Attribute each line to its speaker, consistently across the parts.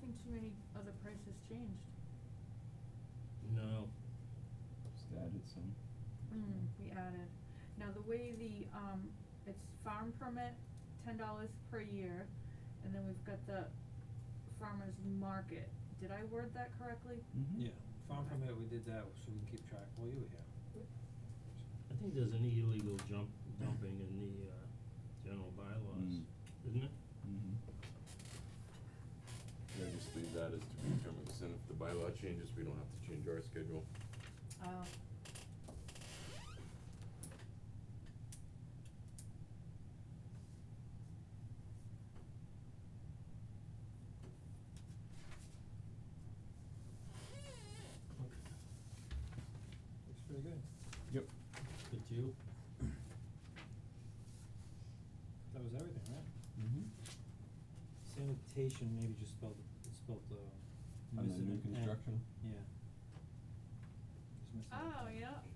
Speaker 1: think too many other prices changed.
Speaker 2: No.
Speaker 3: Just added some.
Speaker 1: Mm, we added. Now, the way the, um, it's farm permit, ten dollars per year, and then we've got the farmer's market. Did I word that correctly?
Speaker 3: Mhm.
Speaker 4: Yeah, farm permit, we did that, so we can keep track, well, you were here.
Speaker 2: I think there's an illegal jump, dumping in the, uh, general bylaws,
Speaker 3: Mm.
Speaker 2: isn't it?
Speaker 3: Mhm.
Speaker 5: Mm-hmm. Yeah, just leave that as to be determined, 'cause then if the bylaw changes, we don't have to change our schedule.
Speaker 1: Oh.
Speaker 4: Looks pretty good.
Speaker 3: Yep.
Speaker 2: Did you?
Speaker 4: That was everything, right?
Speaker 2: Mm-hmm.
Speaker 3: Mhm.
Speaker 4: Sanitation, maybe just spelled, it's spelled, uh,
Speaker 3: On the
Speaker 4: missing
Speaker 3: new
Speaker 4: an N.
Speaker 3: construction?
Speaker 4: Yeah. Just missing an
Speaker 1: Oh,
Speaker 4: N.
Speaker 1: yeah, okay.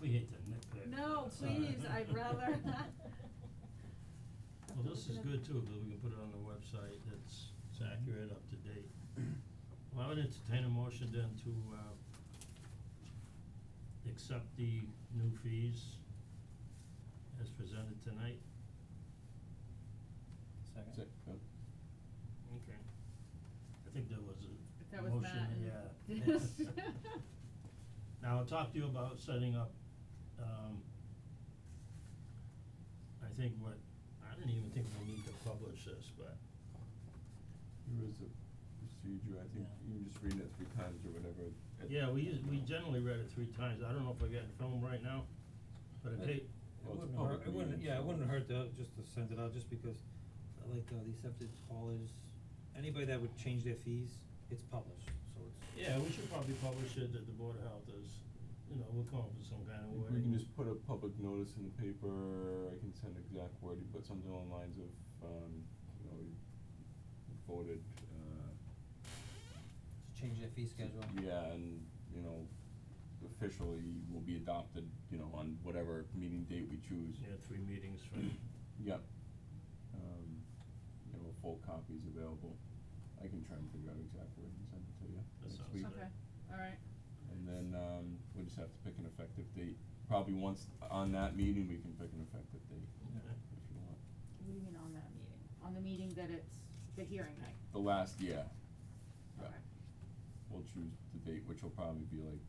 Speaker 2: We hate to nitpick.
Speaker 1: No,
Speaker 2: but it's all right.
Speaker 1: please, I'd rather.
Speaker 2: Well, this is good too, because we can put it on the website, that's, it's accurate, up to date. Well, I would entertain a motion then to, uh, accept the new fees as presented tonight.
Speaker 4: Second?
Speaker 3: Sick, yep.
Speaker 2: Okay. I think there was
Speaker 1: If
Speaker 2: a
Speaker 1: That was
Speaker 2: motion,
Speaker 1: Matt and
Speaker 2: yeah.
Speaker 1: this.
Speaker 2: Now, I'll talk to you about setting up, um, I think what, I didn't even think we need to publish this, but
Speaker 3: There is a procedure, I think,
Speaker 2: Yeah.
Speaker 3: you can just read it three times or whatever. at-
Speaker 2: Yeah, we us- we generally read it three times, I don't know if I got it filmed right now, but it
Speaker 3: Uh,
Speaker 2: take,
Speaker 4: It
Speaker 3: Well, it's
Speaker 4: wouldn't
Speaker 3: a public
Speaker 4: hurt, it wouldn't,
Speaker 3: meeting,
Speaker 4: yeah, it
Speaker 3: so-
Speaker 4: wouldn't hurt to, just to send it out, just because, uh, like, uh, the septic haulers, anybody that would change their fees, it's published, so it's.
Speaker 2: yeah, we should probably publish it that the Board of Health is, you know, we'll come up with some kind
Speaker 3: I
Speaker 2: of
Speaker 3: think
Speaker 2: wording.
Speaker 3: we can just put a public notice in the paper, I can send exact wording, but something along the lines of, um, you know, we voted, uh,
Speaker 4: To change their fee schedule.
Speaker 3: Yeah, and, you know, officially will be adopted, you know, on whatever meeting date we choose.
Speaker 2: Yeah, three meetings from,
Speaker 3: Yep. Um, you know, full copies available. I can try and figure out exactly where and send it to you
Speaker 2: That
Speaker 3: next
Speaker 2: sounds
Speaker 3: week.
Speaker 2: good.
Speaker 1: Okay, alright.
Speaker 3: And then, um, we just have to pick an effective date. Probably once on that meeting, we can pick an effective date,
Speaker 2: okay,
Speaker 3: if you want.
Speaker 1: What do you mean on that meeting? On the meeting that it's the hearing night?
Speaker 3: The last, yeah. Yeah.
Speaker 1: Okay.
Speaker 3: We'll choose the date, which will probably be like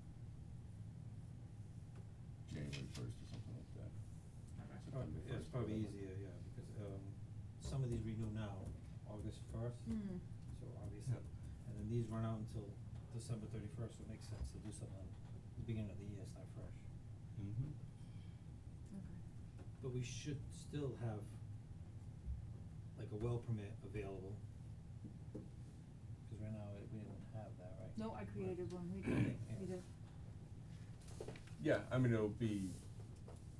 Speaker 3: January first or something like that.
Speaker 1: Okay.
Speaker 4: It's prob-
Speaker 3: September
Speaker 4: yeah, it's
Speaker 3: first,
Speaker 4: probably
Speaker 3: whatever.
Speaker 4: easier, yeah, because, um, some of these renew now, August first.
Speaker 1: Mm.
Speaker 4: So obviously, and then these run out until December thirty-first, so it makes sense to do something at the beginning of the year, start fresh.
Speaker 3: Mm-hmm.
Speaker 1: Okay.
Speaker 4: But we should still have like a well permit available. Cause right now, it- we didn't have that, right?
Speaker 1: No, I
Speaker 4: Right.
Speaker 1: created one, we did,
Speaker 4: Yeah.
Speaker 1: we did.
Speaker 3: Yeah, I mean, it'll be,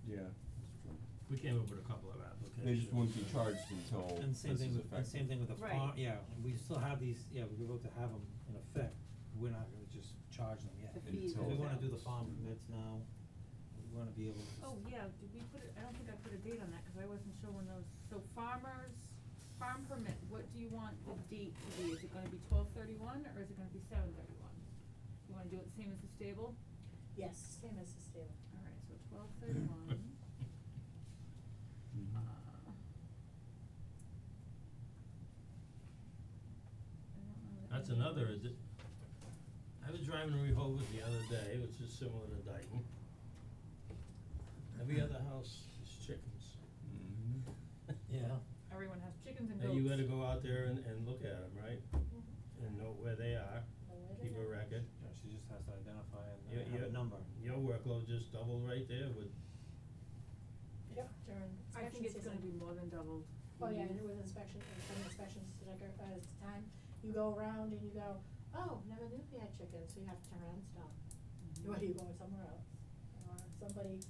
Speaker 3: yeah, that's true.
Speaker 2: we came up with a couple of applications.
Speaker 3: They just won't be charged until
Speaker 4: And
Speaker 3: this is
Speaker 4: same thing with, and
Speaker 3: effective.
Speaker 4: same thing with the
Speaker 1: Right.
Speaker 4: farm, yeah, we still have these, yeah, we were able to have them in effect, we're not gonna just charge them yet.
Speaker 1: The
Speaker 3: And fees
Speaker 4: Cause we
Speaker 3: until-
Speaker 4: wanna do the farm permits now, we wanna be able to.
Speaker 1: Oh, yeah, did we put it, I don't think I put a date on that, cause I wasn't sure when those, so farmers, farm permit, what do you want the date to be? Is it gonna be twelve thirty-one, or is it gonna be seven thirty-one? You wanna do it same as the stable?
Speaker 6: Yes, same as the stable.
Speaker 1: Alright, so twelve thirty-one,
Speaker 2: Mm-hmm.
Speaker 1: uh.
Speaker 3: Mhm.
Speaker 1: I don't know that
Speaker 2: That's
Speaker 1: any-
Speaker 2: another, is it, I was driving to Rehoboth the other day, which is similar to Dayton. Every other house is chickens.
Speaker 3: Mhm.
Speaker 4: Yeah.
Speaker 1: Everyone has chickens and goats.
Speaker 2: And you gotta go out there and, and look at them, right?
Speaker 6: Mm-hmm.
Speaker 2: And know where they are,
Speaker 6: Know where they
Speaker 2: keep a
Speaker 6: are.
Speaker 2: record.
Speaker 4: Yeah, she just has to identify and
Speaker 2: Your,
Speaker 4: uh, have
Speaker 2: your,
Speaker 4: a number.
Speaker 2: your workload just doubled right there with,
Speaker 6: Yep, during
Speaker 1: I
Speaker 6: inspection
Speaker 1: think it's gonna
Speaker 6: season.
Speaker 1: be more than doubled.
Speaker 6: Oh, yeah, and with inspection, and some inspections, like, uh, it's time, you go around and you go, oh, never knew we had chickens, so you have to turn around and stop.
Speaker 1: Mhm.
Speaker 6: Or you go somewhere else, or somebody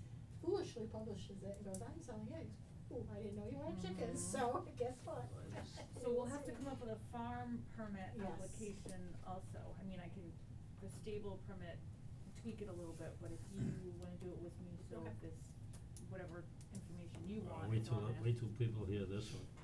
Speaker 6: foolishly publishes it and goes, I'm selling eggs, ooh, I didn't know you had chickens,
Speaker 1: Mhm.
Speaker 6: so guess what?
Speaker 2: Right.
Speaker 1: So we'll have to come up with a farm permit
Speaker 6: Yes.
Speaker 1: application also, I mean, I can, the stable permit, tweak it a little bit, but if you wanna do it with me, so
Speaker 6: Okay.
Speaker 1: if this, whatever information you
Speaker 2: uh,
Speaker 1: want
Speaker 2: wait
Speaker 1: is
Speaker 2: till,
Speaker 1: on it.
Speaker 2: wait till people hear this one.